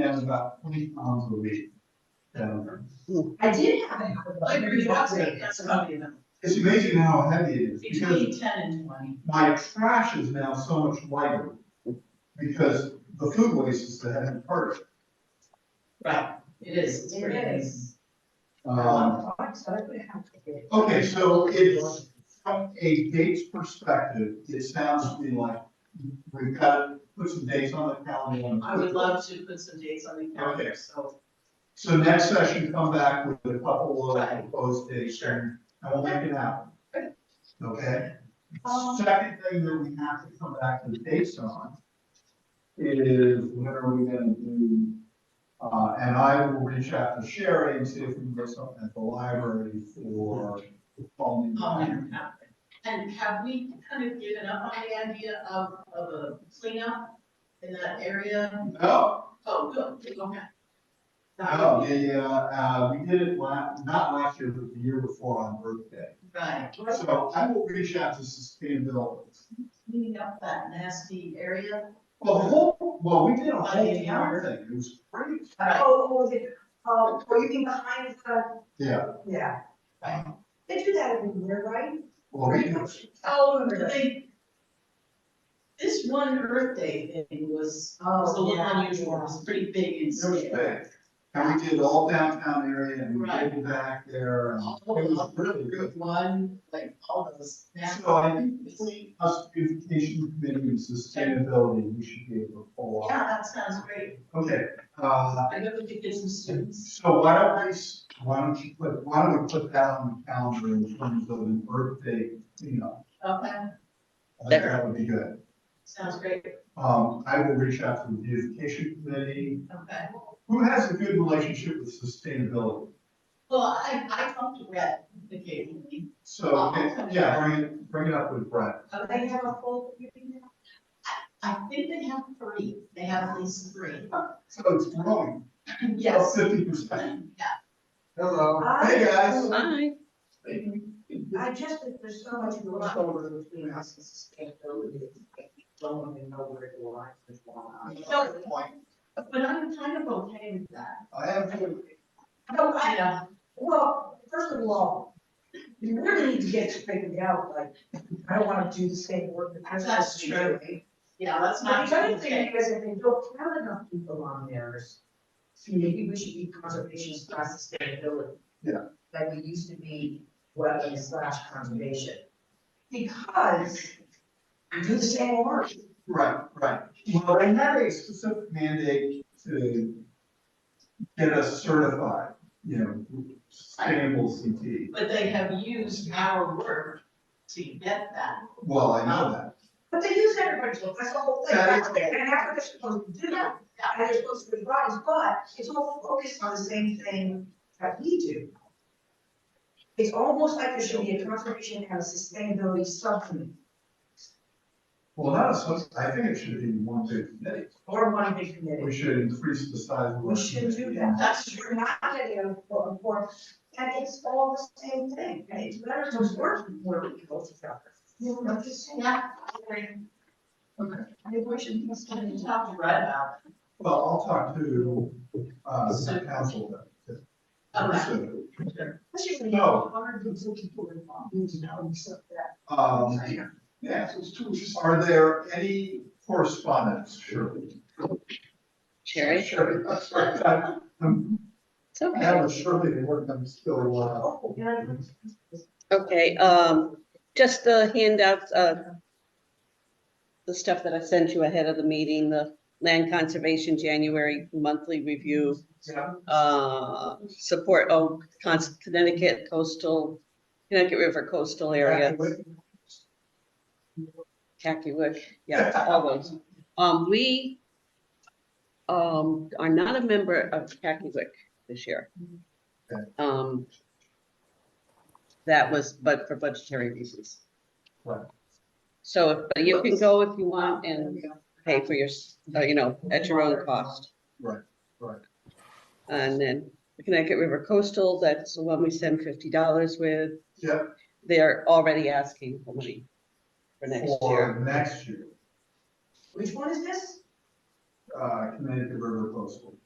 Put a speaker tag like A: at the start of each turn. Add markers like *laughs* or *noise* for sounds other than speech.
A: has about twenty pounds of weight down there.
B: I did have a couple.
C: I agree, that's it, that's about it.
A: It's amazing how heavy it is because
C: Between ten and twenty.
A: my trash is now so much lighter because the food waste is the heavy part.
C: Right, it is, it's pretty
B: It
C: heavy.
B: is.
A: Um,
B: So I would have to get.
A: okay, so it's, from a dates perspective, it sounds to me like we've got to put some dates on the calendar. and-
C: I would love to put some dates on the calendar, so.
A: So next session, come back with a couple of
C: Right.
A: proposed dates, and we'll make it happen. Okay?
B: Um,
A: Second thing that we have to come back to the dates on is when are we gonna do, uh, and I will reach out to Sherry and see if we can get something at the library for the following.
C: I'll make it happen. And have we kind of given up on the idea of, of a cleanup in that area?
A: No,
C: Oh, good, go ahead. That
A: no,
C: would be-
A: the, uh, uh, we did it la, not last year, but the year before on Earth Day.
C: Right,
B: Oh,
A: So I will reach out to sustainability.
C: cleaning up that nasty area.
A: Well, the whole, well, we did a whole town thing, it was great.
C: Right.
B: Oh, what was it, oh, were you mean behind the?
A: Yeah.
B: Yeah.
C: Right.
B: They do that every year, right?
A: Well, we,
C: Oh, they, this one Earth Day thing was,
B: Oh,
C: was a little unusual, it was pretty big in
A: it was
C: scale.
A: big. And we did all downtown area and we
C: Right.
A: did back there and
C: All
A: it was
C: of
A: really
C: them,
A: good.
C: one, like, all those nasty.
A: So I think between us, beautification committee and sustainability, we should be able to pull off.
C: Yeah, that sounds great.
A: Okay, uh,
C: I know we could get some students.
A: so why don't we, s- why don't you put, why don't we put that on the calendar in terms of an Earth Day cleanup?
C: Okay,
A: I think that would be good.
C: uh, sounds great.
A: Um, I will reach out to the beautification committee
C: Okay.
A: Who has a good relationship with sustainability?
C: Well, I, I talked to Brett occasionally. Uh,
A: So, yeah, bring it, bring it up with Brett.
B: They have a full, you think now?
C: I think they have three. They have at least three.
A: So it's growing.
C: Yes.
A: Fifty percent.
C: Yeah.
A: Hello.
B: Hi.
A: Hey, guys.
D: Hi.
B: I just, think there's so much going on over between us and sustainability, don't even know where the lines are.
C: No, But I'm kind of okay with that.
A: I have to,
B: No, I,
C: Yeah.
B: Well, first of all, you really need to get it figured out, like, I don't wanna do the same work that I was
C: That's
B: supposed to do.
C: Yeah, that's
B: But
C: not.
B: the other thing is, if they don't have enough people on theirs, see, maybe we should be conservation slash sustainability.
A: Yeah.
B: Like we used to be wetland slash conservation. Because we do the same work.
A: right, right. Well, they had a specific mandate to get us certified, you know, sustainable CT.
C: But they have used our work to get that.
A: Well, I know that.
B: But they use everybody's work, that's the whole thing,
A: That is-
B: and that's what they're supposed to do.
C: Yeah.
B: and they're supposed to be bodies, but it's all focused on the same thing that we do. It's almost like there should be a conservation and a sustainability subcommittee
A: Well, not as much, I think it should be one big committee.
B: or one big
A: We
B: committee.
A: should increase the size of. our
B: We should do
A: committee.
B: that.
C: That's true.
B: We're not gonna do a forum, forum, and it's all the same thing, and it's better to work where we go together. You know, I'm just saying.
C: Yeah. I think we should, we should talk to Brett about.
A: Well, I'll talk to, uh, the
C: So-
A: council then. to-
C: Okay.
A: so-
B: Especially when you
A: No.
B: have hundreds of people involved, you know, and stuff that.
A: Um, yeah, so it's two. Are there any correspondence? Sure.
D: Sherry.
A: Sure. *laughs* I'm sorry, I- I'm-
D: It's okay.
A: I have a surely to work, I'm still, uh,
B: Oh,
D: Okay, um, just the handouts, uh, the stuff that I sent you ahead of the meeting, the land conservation January monthly review,
A: yeah,
D: uh, support oak, Cons- Connecticut coastal, Connecticut River coastal area, Cacuic, yeah, all those. Um, we, um, are not a member of Cacuic this year.
A: Okay.
D: Um, that was, but for budgetary reasons.
A: Right.
D: So, but you can go if you want and pay for your, s- uh, you know, at your own cost.
A: Right, right.
D: And then the Connecticut River Coastal, that's the one we send fifty dollars with.
A: yeah,
D: They're already asking for money for next year.
A: for next year,
B: Which one is this?
A: uh, Connecticut River Coastal.